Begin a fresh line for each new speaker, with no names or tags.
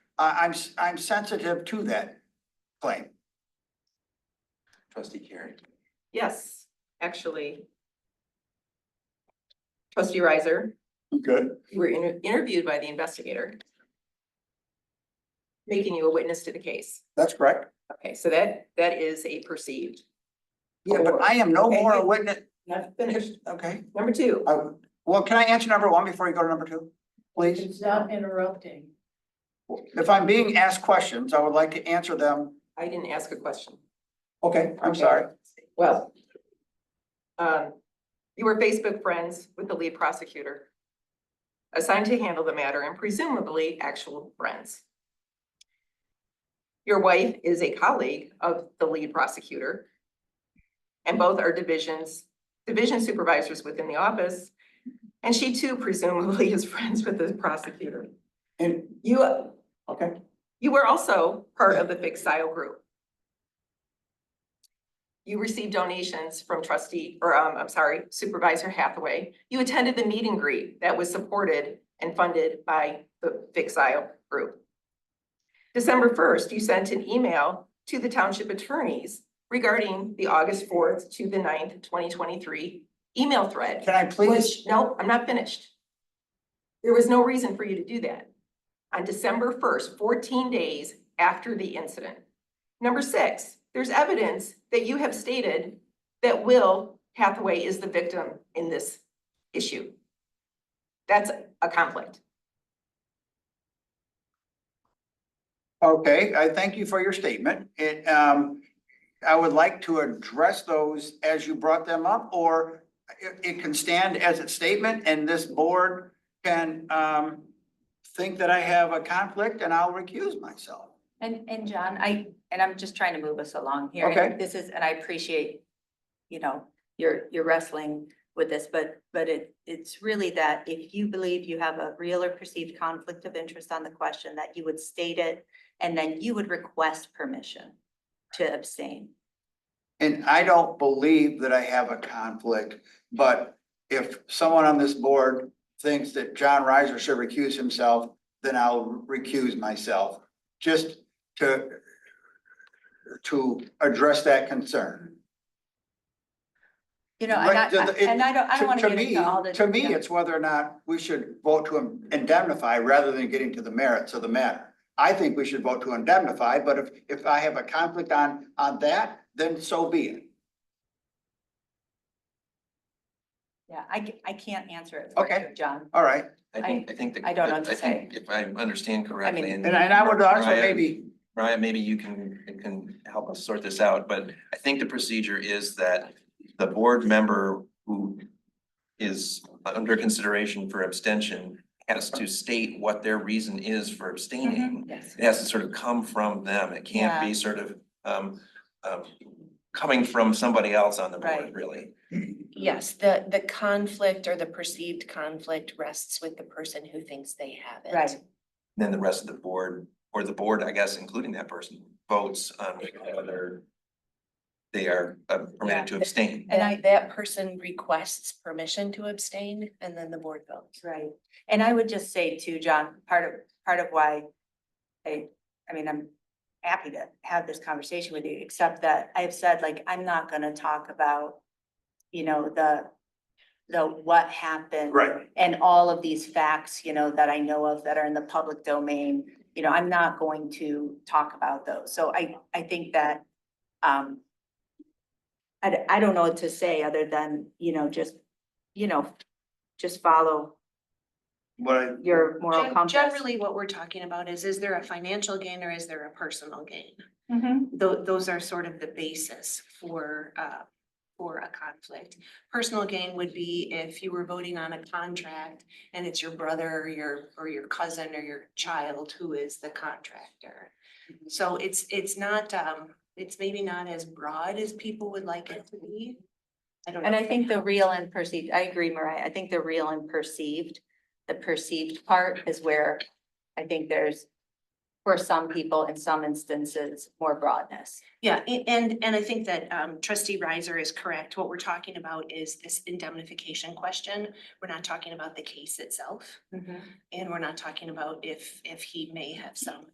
I, I'm, s- I'm sensitive to that claim.
Trustee Carey.
Yes, actually. Trustee Riser,
Good.
you were inter- interviewed by the investigator. Making you a witness to the case.
That's correct.
Okay, so that, that is a perceived.
Yeah, but I am no
Okay.
more a witness,
Not finished.
okay?
Number two,
I, well, can I answer number one before you go to number two? Please,
It's not interrupting.
if I'm being asked questions, I would like to answer them.
I didn't ask a question.
Okay, I'm
Okay.
sorry.
Well. Um, you were Facebook friends with the lead prosecutor. Assigned to handle the matter and presumably actual friends. Your wife is a colleague of the lead prosecutor. And both are divisions, division supervisors within the office. And she too presumably is friends with the prosecutor.
And,
You,
okay,
you were also part of the Big Sile group. You received donations from trustee, or um, I'm sorry, Supervisor Hathaway. You attended the meet and greet that was supported and funded by the Big Sile group. December first, you sent an email to the township attorneys regarding the August fourth to the 9th, twenty twenty-three email thread.
can I please?
Which, no, I'm not finished. There was no reason for you to do that. On December first, fourteen days after the incident. Number six, there's evidence that you have stated that Will Hathaway is the victim in this issue. That's a conflict.
Okay, I thank you for your statement. It, um, I would like to address those as you brought them up, or it, it can stand as a statement and this board can, um, think that I have a conflict and I'll recuse myself.
And, and John, I, and I'm just trying to move us along here. and
Okay.
This is, and I appreciate, you know, you're, you're wrestling with this, but, but it, it's really that if you believe you have a real or perceived conflict of interest on the question, that you would state it, and then you would request permission to abstain.
And I don't believe that I have a conflict, but if someone on this board thinks that John Reiser should recuse himself, then I'll recuse myself, just to to address that concern.
You know, and
Right,
I, I-
it-
and I don't, I don't
To-
want
to
to get
me-
into all the.
To me,
you know,
it's whether or not we should vote to indemnify rather than getting to the merits of the matter. I think we should vote to indemnify, but if, if I have a conflict on, on that, then so be it.
Yeah, I, ca- I can't answer it for
Okay.
you, John.
All right.
I think, I think. the-
I don't know what to
think If I understand correctly,
mean-
and
And I, and I would also
Right.
maybe,
Brian, maybe you can, you can help us sort this out, but I think the procedure is that the board member who is under consideration for abstention has to state what their reason is for abstaining.
Yes.
It has to sort of come from them. It can't be sort of, um, um, coming from somebody else on the board,
Right.
really.
Yes, the, the conflict or the perceived conflict rests with the person who thinks they have it.
Right.
Then the rest of the board, or the board, I guess, including that person, votes on whether they are uh, permitted to abstain.
And
And
I-
that person requests permission to abstain and then the board votes.
Right, and I would just say too, John, part of, part of why I, I mean, I'm happy to have this conversation with you, except that I've said, like, I'm not gonna talk about, you know, the, the what happened.
Right.
And all of these facts, you know, that I know of that are in the public domain, you know, I'm not going to talk about those. So I, I think that, um, I, d- I don't know what to say other than, you know, just, you know, just follow
what I,
your moral
Gen-
compass.
Generally, what we're talking about is, is there a financial gain or is there a personal gain?
Mm-hmm.
Tho- those are sort of the basis for, uh, for a conflict. Personal gain would be if you were voting on a contract and it's your brother or your, or your cousin or your child who is the contractor.
Mm-hmm.
So it's, it's not, um, it's maybe not as broad as people would like it to be. I don't know.
And I think the real and perceived, I agree, Mariah, I think the real and perceived, the perceived part is where I think there's for some people, in some instances, more broadness.
Yeah, a- and, and I think that um, trustee Riser is correct. What we're talking about is this indemnification question. We're not Mm-hmm. talking about the case itself. And we're not talking about if, if he may have some